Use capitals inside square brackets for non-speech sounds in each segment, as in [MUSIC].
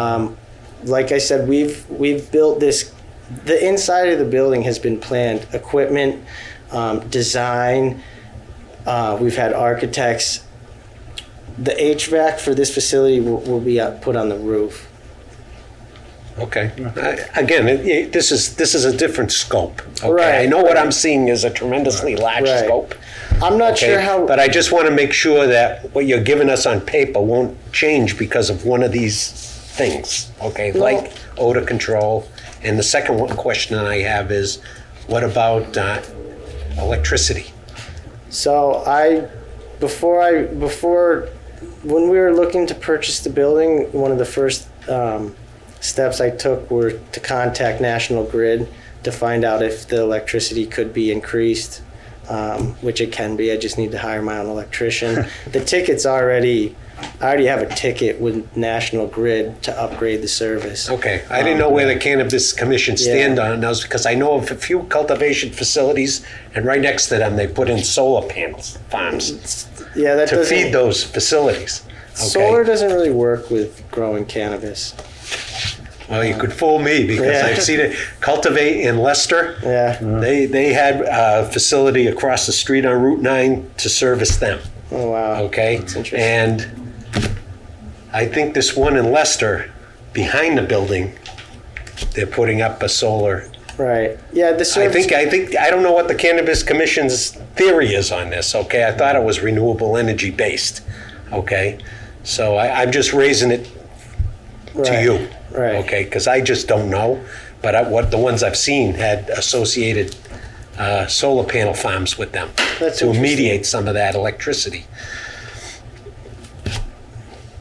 Um, like I said, we've we've built this. The inside of the building has been planned. Equipment, um, design. Uh, we've had architects. The HVAC for this facility will, will be up, put on the roof. Okay. I- Again, it- it- this is, this is a different scope. okay? Right. I know what I'm seeing is a tremendously large Right. scope. I'm not okay? sure how. But I just want to make sure that what you're giving us on paper won't change because of one of these things, okay? No. Like odor control. And the second one question I have is, what about uh, electricity? So I, before I, before, when we were looking to purchase the building, one of the first um, steps I took were to contact National Grid to find out if the electricity could be increased, um, which it can be. I just need to hire my own [LAUGHS] electrician. the ticket's already, I already have a ticket with National Grid to upgrade the service. Okay, I didn't Ah, know where the cannabis commission stand on those, because I know of a few cultivation facilities, and right next to them, they put in solar panels, farms, Yeah, that to doesn't. feed those facilities. Okay. Solar doesn't really work with growing cannabis. Well, you could fool me, because Yeah. I've seen it, Cultivate in Leicester. Mm-hmm. Yeah. They, they had a facility across the street on Route 9 to service them, Oh wow. okay? interesting. And I think this one in Leicester, behind the building, they're putting up a solar Right. Yeah. The I service. think, I think, I don't know what the Cannabis Commission's theory is on this, okay? I thought it was renewable energy based, okay? So I, I'm just raising it to Right, you, Right. okay? Because I just don't know, but I, what, the ones I've seen had associated uh, solar panel farms with them That's to interesting. mediate some of that electricity.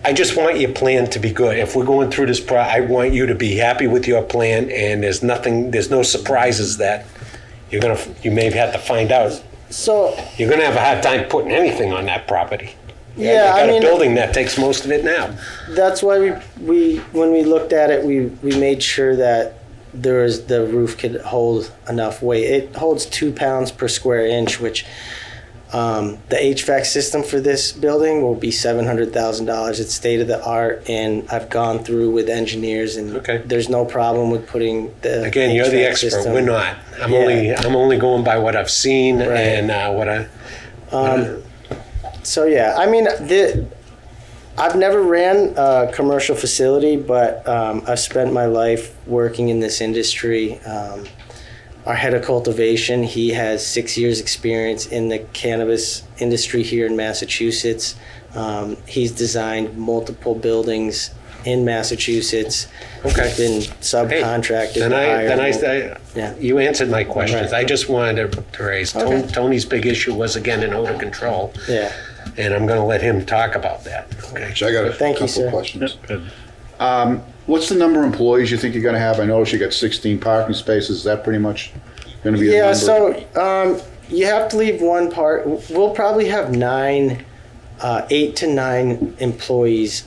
I just want your plan to be good. If we're going through this, pro- I want you to be happy with your plan, and there's nothing, there's no surprises that you're gonna, you may have to find out. So You're gonna have a hard time putting anything on that property. You Yeah, I got a mean- building that takes most of it now. that's why we, we when we looked at it, we we made sure that there was the roof could hold enough weight. It holds two pounds per square inch, which um, the HVAC system for this building will be seven hundred thousand dollars. It's state of the art, and I've gone through with engineers, and Okay. there's no problem with putting the Again, you're the HVAC expert. system. We're not. I'm Yeah. only I'm only going by what I've seen and uh, what I. Um, So yeah, I mean, the, I've never ran a commercial facility, but um, I've spent my life working in this industry. Um, our head of cultivation, he has six years' experience in the cannabis industry here in Massachusetts. Um, he's designed multiple buildings in Massachusetts. Okay. He's been subcontracted. Then I hired. then I, I Yeah. you answered my questions. Right. I just wanted to, to raise Ton- Okay. Tony's big issue was again in odor control, yeah. and I'm going to let him talk about that. Okay. So I got a Thank you, couple sir. questions. Um, Good. What's the number of employees you think you're going to have? I noticed you got 16 parking spaces. Is that pretty much going to be the Yeah, number? so um, you have to leave one part. We'll probably have nine, uh, eight to nine employees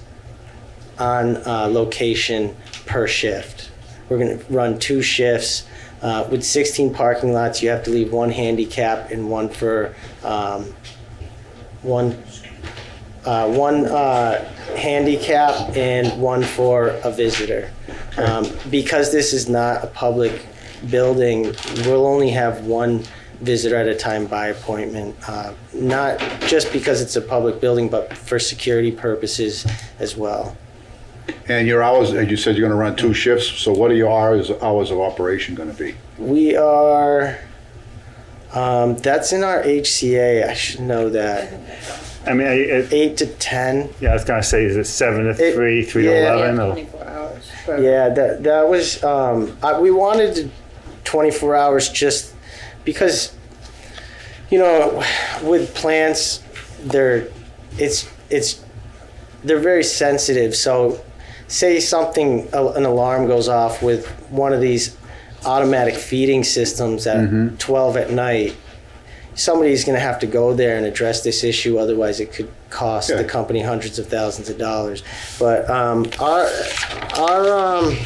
on uh, location per shift. We're going to run two shifts. Uh, with 16 parking lots, you have to leave one handicap and one for um, one. Uh, one uh, handicap and one for a visitor. Um, because this is not a public building, we'll only have one visitor at a time by appointment. Uh, not just because it's a public building, but for security purposes as well. and your hours, you said you're going to run two shifts. So what are your hours, hours of operation going to be? We are. Um, that's in our HCA. I should know that. I mean, I- it, Eight to ten. yeah, I was gonna say, is it seven to It- three, three to yeah. eleven, or Twenty-four hours. for- Yeah, that that was. Um, I, we wanted to 24 hours just because, you know, with plants, they're it's it's they're very sensitive. So, say something a- an alarm goes off with one of these automatic feeding systems at 12 at night. Somebody's going to have to go there and address this issue. Otherwise, it could cost Yeah. the company hundreds of thousands of dollars. But um, our our um,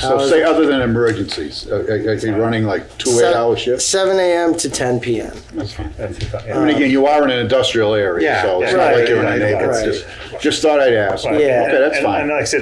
So Hours- say other than emergencies, uh, uh, are you running like two eight-hour shifts? 7 a.m. to 10 p.m. That's fine. Yeah. And again, you are in an industrial area, Yeah, so it's yeah, not right, like you're in a right, neighborhood. right. Just, just thought I'd ask. Yeah. Okay, that's And- fine. And like I said,